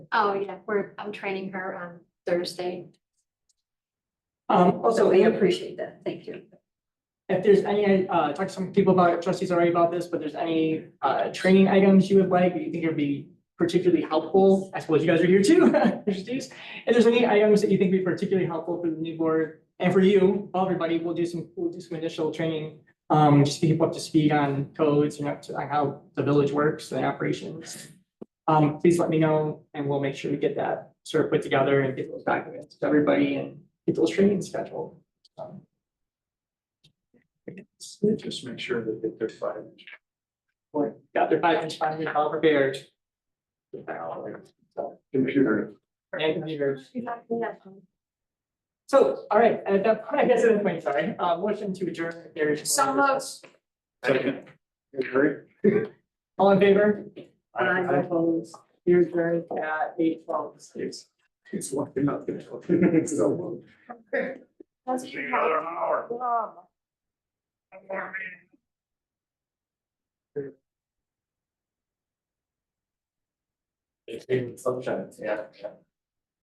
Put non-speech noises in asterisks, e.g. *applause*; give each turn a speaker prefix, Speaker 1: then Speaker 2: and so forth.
Speaker 1: Oh, yeah, we're, I'm training her on Thursday.
Speaker 2: Um,
Speaker 3: Oh, So
Speaker 2: also,
Speaker 3: we
Speaker 2: if
Speaker 3: appreciate that, thank you.
Speaker 2: if there's any, uh, talked to some people about, it, trustees already about this, but there's any, uh, training items you would like, that you think would be particularly helpful, I suppose you guys are here too, *laughs* trustees. If there's any items that you think would be particularly helpful for the new board and for you, everybody, we'll do some, we'll do some initial training. Um, just to keep up to speed on codes and up to, on how the village works and operations. Um, please let me know and we'll make sure we get that sort of put together and get those documents to everybody and get those trainings scheduled. Um,
Speaker 4: Just make sure that they- they're five.
Speaker 2: Like, got their five inch finally all prepared.
Speaker 4: Computer.
Speaker 2: And computers.
Speaker 1: Second.
Speaker 2: So, all right, at that point, I guess at that point, sorry, uh, motion to adjourn. there's-
Speaker 3: So moved.
Speaker 4: Second. Agree?
Speaker 2: All in favor?
Speaker 4: Aye.
Speaker 2: Opposed. Here's adjourned at eight twelve.
Speaker 4: It's, it's looking up. It's so long. See you in another hour. One more meeting. It's in sunshine, yeah.